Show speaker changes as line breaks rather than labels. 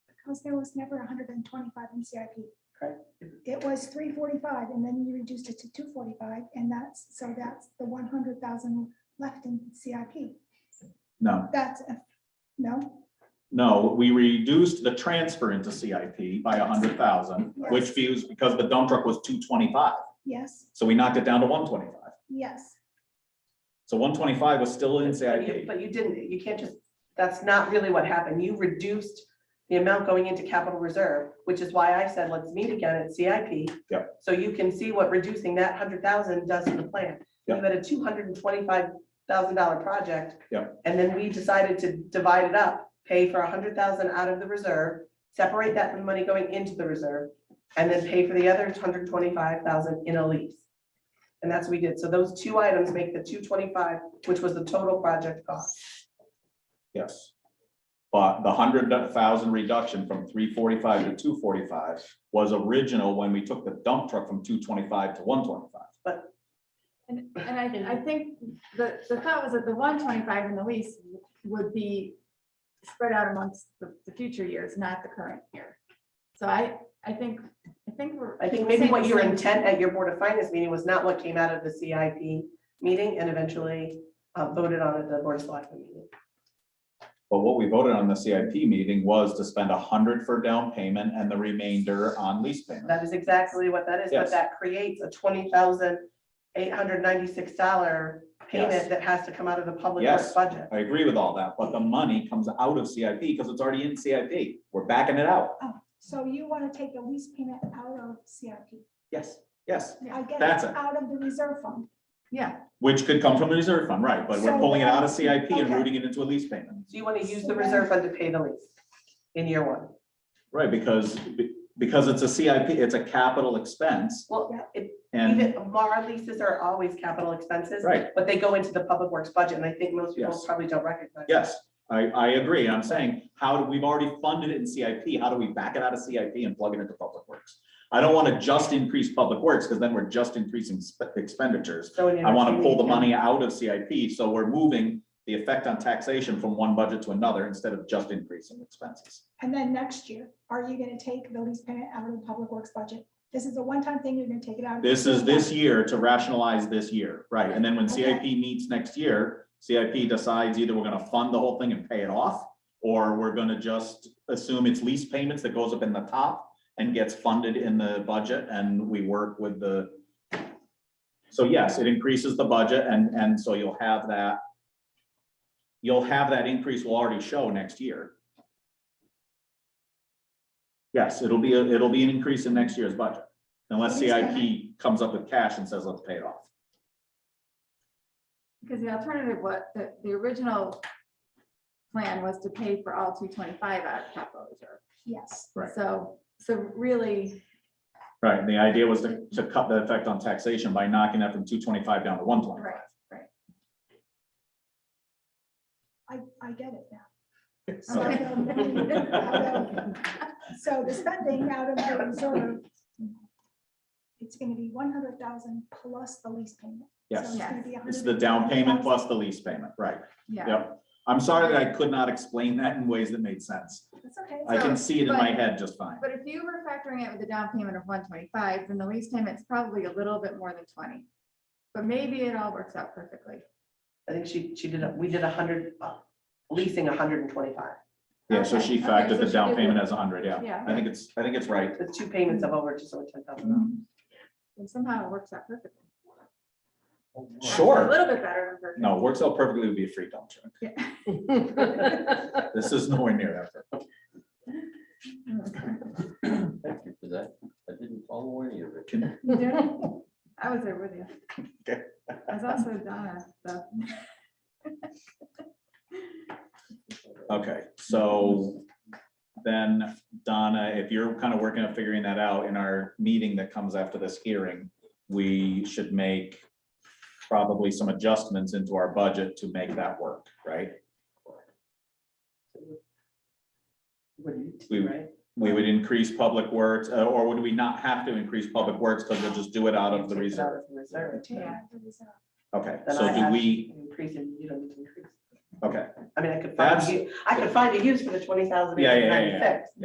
because there was never hundred and twenty-five in CIP.
Correct.
It was three forty-five and then you reduced it to two forty-five and that's, so that's the one hundred thousand left in CIP.
No,
That's, a- no,
no, we reduced the transfer into CIP by a hundred thousand, which
Yes.
views, because the dump truck was two twenty-five,
yes,
so we knocked it down to one twenty-five.
yes,
So one twenty-five was still in
But you-
CIP.
but you didn't, you can't just, that's not really what happened. You reduced the amount going into capital reserve, which is why I said, let's meet again at CIP.
Yep.
So you can see what reducing that hundred thousand does to the plan. You
Yep.
had a two hundred and twenty-five thousand dollar project.
Yep.
And then we decided to divide it up, pay for a hundred thousand out of the reserve, separate that from the money going into the reserve, and then pay for the other hundred twenty-five thousand in a lease. And that's what we did. So those two items make the two twenty-five, which was the total project cost.
Yes. But the hundred thousand reduction from three forty-five to two forty-five was original when we took the dump truck from two twenty-five to one twenty-five.
And, and I, I think the, the thought was that the one twenty-five in the lease would be spread out amongst the, the future years, not the current year. So I, I think, I think we're.
I think maybe what your
saying-
intent at your Board of Finance meeting was not what came out of the CIP meeting and eventually uh, voted on at the Board of Selectmen meeting.
But what we voted on the CIP meeting was to spend a hundred for down payment and the remainder on lease payment.
That is exactly what that is, but
Yes.
that creates a twenty thousand eight hundred ninety-six dollar
Yes.
payment that has to come out of the public works
Yes.
budget.
I agree with all that, but the money comes out of CIP because it's already in CIP. We're backing it out.
so you want to take the lease payment out of CIP.
Yes, yes.
I get
That's
it,
it.
out of the reserve fund.
Yeah,
Which could come from the reserve fund, right? But we're
So-
pulling it out of CIP and
Okay.
routing it into a lease payment.
So you want to use the reserve fund to pay the lease in year one.
Right, because, because it's a CIP, it's a capital expense
Well,
Yeah.
it,
and,
even, our leases are always capital expenses,
right,
but they go into the public works budget, and I think most people
Yes.
probably don't recognize. that.
yes, I, I agree. I'm saying, how do, we've already funded it in CIP, how do we back it out of CIP and plug it into public works? I don't want to just increase public works, because then we're just increasing spe- expenditures.
So in
I want to
entertaining
pull the
account-
money out of CIP, so we're moving the effect on taxation from one budget to another instead of just increasing expenses.
And then next year, are you gonna take the lease payment out of the public works budget? This is a one-time thing, you're gonna take it out. of the
This is
reserve
this
fund.
year to rationalize this year, right? And then when CIP meets next year, CIP decides either we're gonna fund the whole thing and pay it off, or we're gonna just assume it's lease payments that goes up in the top and gets funded in the budget, and we work with the. So yes, it increases the budget, and, and so you'll have that. You'll have that increase will already show next year. Yes, it'll be, a it'll be an increase in next year's budget. Unless
What is that?
CIP comes up with cash and says, let's pay it off.
because the alternative, what, the, the original plan was to pay for all two twenty-five out of capital reserve.
Yes,
Right.
So, so really,
Right, and the idea was to, to cut the effect on taxation by knocking that from two twenty-five down to one
right,
twenty-five.
I, I get it now. So
So-
the- So the spending out of the reserve, it's gonna be one hundred thousand plus the lease payment. So
Yes,
it's gonna be a
it's the
hundred
down
and
payment
twenty
plus the lease payment, right,
yeah.
yep. I'm sorry that I could not explain that in ways that made sense.
thousand. It's okay.
I can
So,
see it in my
but-
head just fine.
But if you were factoring it with a down payment of one twenty-five, then the lease payment's probably a little bit more than twenty. But maybe it all works out perfectly.
I think she, she did, a- we did a hundred, uh, leasing a hundred and twenty-five,
Yeah, so she
Okay, okay,
factored
so
the
she
down
did
payment
work.
as a hundred, yeah.
Yeah.
I think it's, I think it's right.
with two payments of over just over ten thousand dollars.
And somehow it works out perfectly. A
Sure,
little bit better than perfect.
no, works out perfectly would be a free dump truck. This is nowhere near that. perfect.
Mm.
Thank you for that. I didn't follow any of it.
You did it? I was there with you.
Okay.
I was also Donna, so.
Okay, so then Donna, if you're kind of working on figuring that out in our meeting that comes after this hearing, we should make probably some adjustments into our budget to make that work, right?
Wouldn't,
We-
right?
We would increase public works, uh, or would we not have to increase public works because we'll just do it out of the
Take it out
reserve?
of the reserve.
Take it
Yeah.
out of the reserve.
Okay,
Then
so
I
do
have
we,
an Increase and you don't need to increase.
okay,
I mean, I could find,
That's-
you- I could find a use for the twenty thousand.
Yeah, yeah, yeah, yeah.